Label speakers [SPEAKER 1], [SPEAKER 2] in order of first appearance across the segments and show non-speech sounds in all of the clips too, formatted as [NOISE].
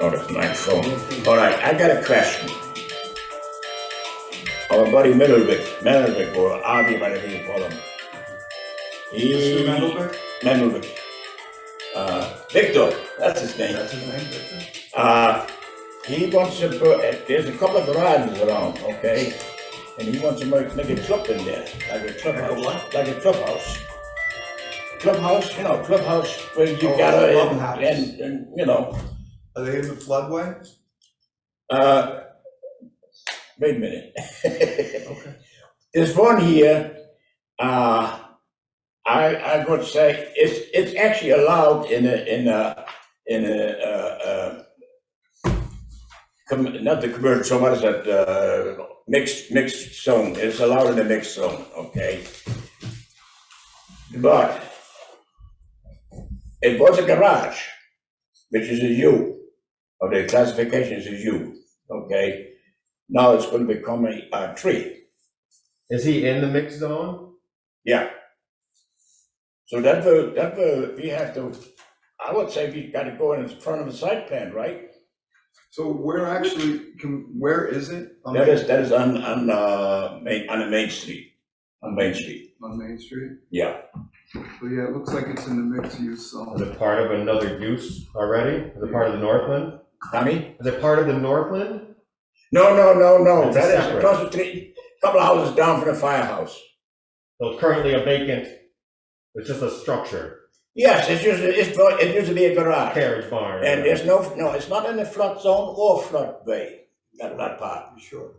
[SPEAKER 1] Oh, that's my phone. All right, I got a question. Our buddy Middlewick, Middlewick, or Avi, whatever you call him. He,
[SPEAKER 2] Mr. Mendelberg?
[SPEAKER 1] Middlewick. Uh, Victor, that's his name.
[SPEAKER 2] That's his name, Victor?
[SPEAKER 1] Uh, he wants to put, uh, there's a couple of garages around, okay? And he wants to make, make a club in there, like a clubhouse.
[SPEAKER 2] what?
[SPEAKER 1] Like a clubhouse. Clubhouse, you know, clubhouse where you
[SPEAKER 2] Oh,
[SPEAKER 1] gather
[SPEAKER 2] clubhouse.
[SPEAKER 1] and, and, and, you know,
[SPEAKER 2] Are they in the floodway?
[SPEAKER 1] uh, wait a minute. [LAUGHS]
[SPEAKER 2] Okay.
[SPEAKER 1] There's one here, uh, I, I would say, it's, it's actually allowed in a, in a, in a, uh, uh, com, not the commercial, what is that, uh, mixed, mixed zone, it's allowed in the mixed zone, okay? But it was a garage, which is a U, or the classification is a U, okay? Now it's gonna become a, a tree.
[SPEAKER 3] Is he in the mix zone?
[SPEAKER 1] Yeah. So that, the- that, the- we have to, I would say we gotta go in front of the site plan, right?
[SPEAKER 2] So where actually, can, where is it? On
[SPEAKER 1] That
[SPEAKER 2] Main-
[SPEAKER 1] is, that is on, on, uh, Main, on the Main Street, on Main Street,
[SPEAKER 2] On Main Street?
[SPEAKER 1] yeah.
[SPEAKER 2] So yeah, it looks like it's in the mixed use
[SPEAKER 3] Is
[SPEAKER 2] zone.
[SPEAKER 3] it part of another use already? Is it part of the Northland?
[SPEAKER 1] Tommy?
[SPEAKER 3] Is it part of the Northland?
[SPEAKER 1] No, no, no, no,
[SPEAKER 3] It's a
[SPEAKER 1] that is
[SPEAKER 3] separate.
[SPEAKER 1] across the street, couple of houses down from the firehouse.
[SPEAKER 3] So it's currently a vacant, it's just a structure,
[SPEAKER 1] Yes, it's usually, it's, not- it used to be a garage.
[SPEAKER 3] carriage barn.
[SPEAKER 1] And there's no, no, it's not in the flood zone or floodway, that, that part.
[SPEAKER 2] You Sure.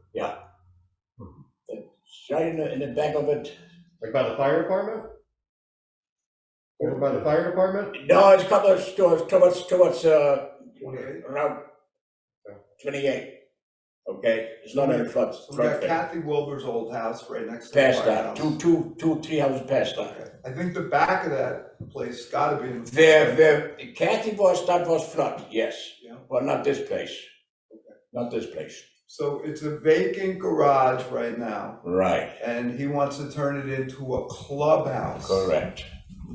[SPEAKER 1] It's right in the, in the back of it.
[SPEAKER 3] Like by the fire department? Over by the fire department?
[SPEAKER 1] No, it's a couple of stores towards, towards, uh,
[SPEAKER 2] Okay.
[SPEAKER 1] Route twenty-eight, okay? It's not in the flood,
[SPEAKER 2] So we
[SPEAKER 1] flood
[SPEAKER 2] got
[SPEAKER 1] plain.
[SPEAKER 2] Kathy Wilber's old house right next to the
[SPEAKER 1] Past that, two,
[SPEAKER 2] firehouse.
[SPEAKER 1] two, two, three houses past that.
[SPEAKER 2] Okay. I think the back of that place gotta be in. the
[SPEAKER 1] There, there, Kathy was, that was flood, yes,
[SPEAKER 2] Yeah.
[SPEAKER 1] but not this place. Not this place.
[SPEAKER 2] So it's a vacant garage right now,
[SPEAKER 1] Right,
[SPEAKER 2] and he wants to turn it into a clubhouse.
[SPEAKER 1] correct.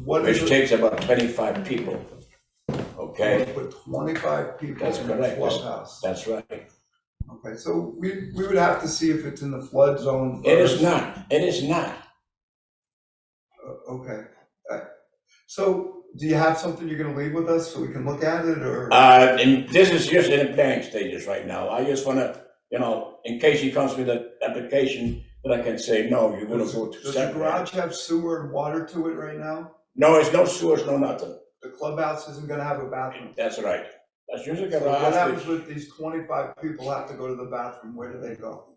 [SPEAKER 2] What is
[SPEAKER 1] Which
[SPEAKER 2] it?
[SPEAKER 1] takes about twenty-five people, okay?
[SPEAKER 2] Put twenty-five people
[SPEAKER 1] That's
[SPEAKER 2] in a
[SPEAKER 1] correct.
[SPEAKER 2] clubhouse.
[SPEAKER 1] That's right.
[SPEAKER 2] Okay, so we, we would have to see if it's in the flood zone.
[SPEAKER 1] It is
[SPEAKER 2] first.
[SPEAKER 1] not, it is not.
[SPEAKER 2] O- Okay. Uh, So do you have something you're gonna leave with us so we can look at it or?
[SPEAKER 1] Uh, and this is just in the planning stages right now. I just wanna, you know, in case he comes with an application, that I can say, no, you wouldn't
[SPEAKER 2] Does
[SPEAKER 1] go to.
[SPEAKER 2] does the
[SPEAKER 1] setback."
[SPEAKER 2] garage have sewer and water to it right now?
[SPEAKER 1] No, it's no sewers, no nothing.
[SPEAKER 2] The clubhouse isn't gonna have a bathroom.
[SPEAKER 1] That's right. That's usually
[SPEAKER 2] So what happens
[SPEAKER 1] garage, which
[SPEAKER 2] with these twenty-five people have to go to the bathroom? Where do they go?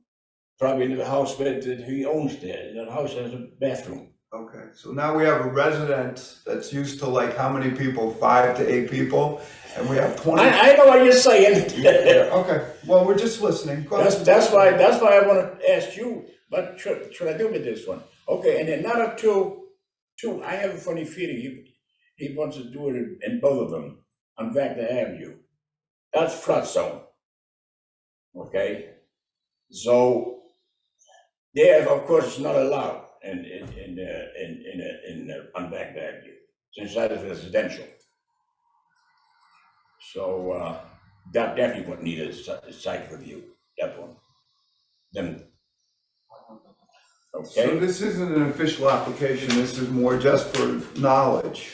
[SPEAKER 1] probably in the house where that he owns there. That house has a bathroom.
[SPEAKER 2] Okay, so now we have a resident that's used to like how many people? Five to eight people? And we have twenty.
[SPEAKER 1] I, I know what you're saying. [LAUGHS]
[SPEAKER 2] Yeah, Okay, well, we're just listening. Go
[SPEAKER 1] That's,
[SPEAKER 2] ahead.
[SPEAKER 1] that's why, that's why I wanna ask you, what should, should I do with this one? Okay, and another two, two, I have a funny feeling he, he wants to do it in- in both of them, on Wagner Avenue. That's flood zone. Okay? So, there, of course, it's not allowed in, in, in, uh, in, in, uh, in, uh, on Wagner Avenue, since that is residential. So, uh, that definitely would need a si- site review that one. Then.
[SPEAKER 2] So
[SPEAKER 1] Okay,
[SPEAKER 2] this isn't an official application, this is more just for knowledge,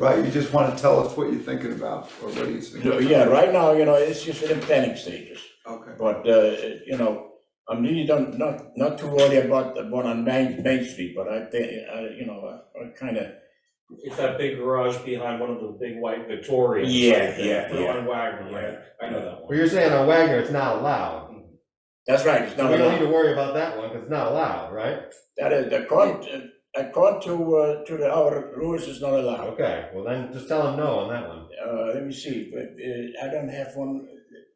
[SPEAKER 2] right? You just want to tell us what you're thinking about or what he's thinking.
[SPEAKER 1] So,
[SPEAKER 2] about.
[SPEAKER 1] yeah, right now, you know, it's just in the planning stages,
[SPEAKER 2] Okay,
[SPEAKER 1] but, uh, you know, I'm really don't, not, not too worried about the one on Main, Main Street, but I think, uh, you know, I kinda,
[SPEAKER 4] It's that big garage behind one of the big white Victorias.
[SPEAKER 1] Yeah,
[SPEAKER 4] right there,
[SPEAKER 1] yeah, yeah.
[SPEAKER 4] On Wagner, right? I know that
[SPEAKER 3] Well,
[SPEAKER 4] one.
[SPEAKER 3] you're saying on Wagner, it's not allowed.
[SPEAKER 1] that's right, it's
[SPEAKER 3] So
[SPEAKER 1] not
[SPEAKER 3] we don't need
[SPEAKER 1] allowed.
[SPEAKER 3] to worry about that one, because it's not allowed, right?
[SPEAKER 1] That uh, is, according, according to, uh, to the, our rules, it's not allowed.
[SPEAKER 3] Okay, well then, just tell him no on that one.
[SPEAKER 1] Uh, let me see, but, uh, I don't have one,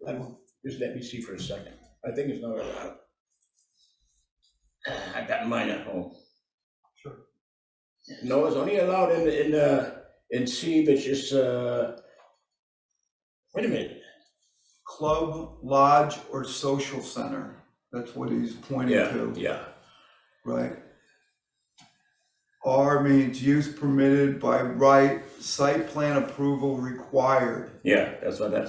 [SPEAKER 1] uh, um, just let me see for a second, I think it's not allowed. [SIGHS] I got mine at home.
[SPEAKER 2] Sure.
[SPEAKER 1] No, it's only allowed in, in, uh, in C, which is, uh, wait a minute,
[SPEAKER 2] club, lodge, or social center, that's what he's pointing
[SPEAKER 1] yeah,
[SPEAKER 2] to,
[SPEAKER 1] yeah,
[SPEAKER 2] right? R means use permitted by right, site plan approval required.
[SPEAKER 1] yeah, that's what that's.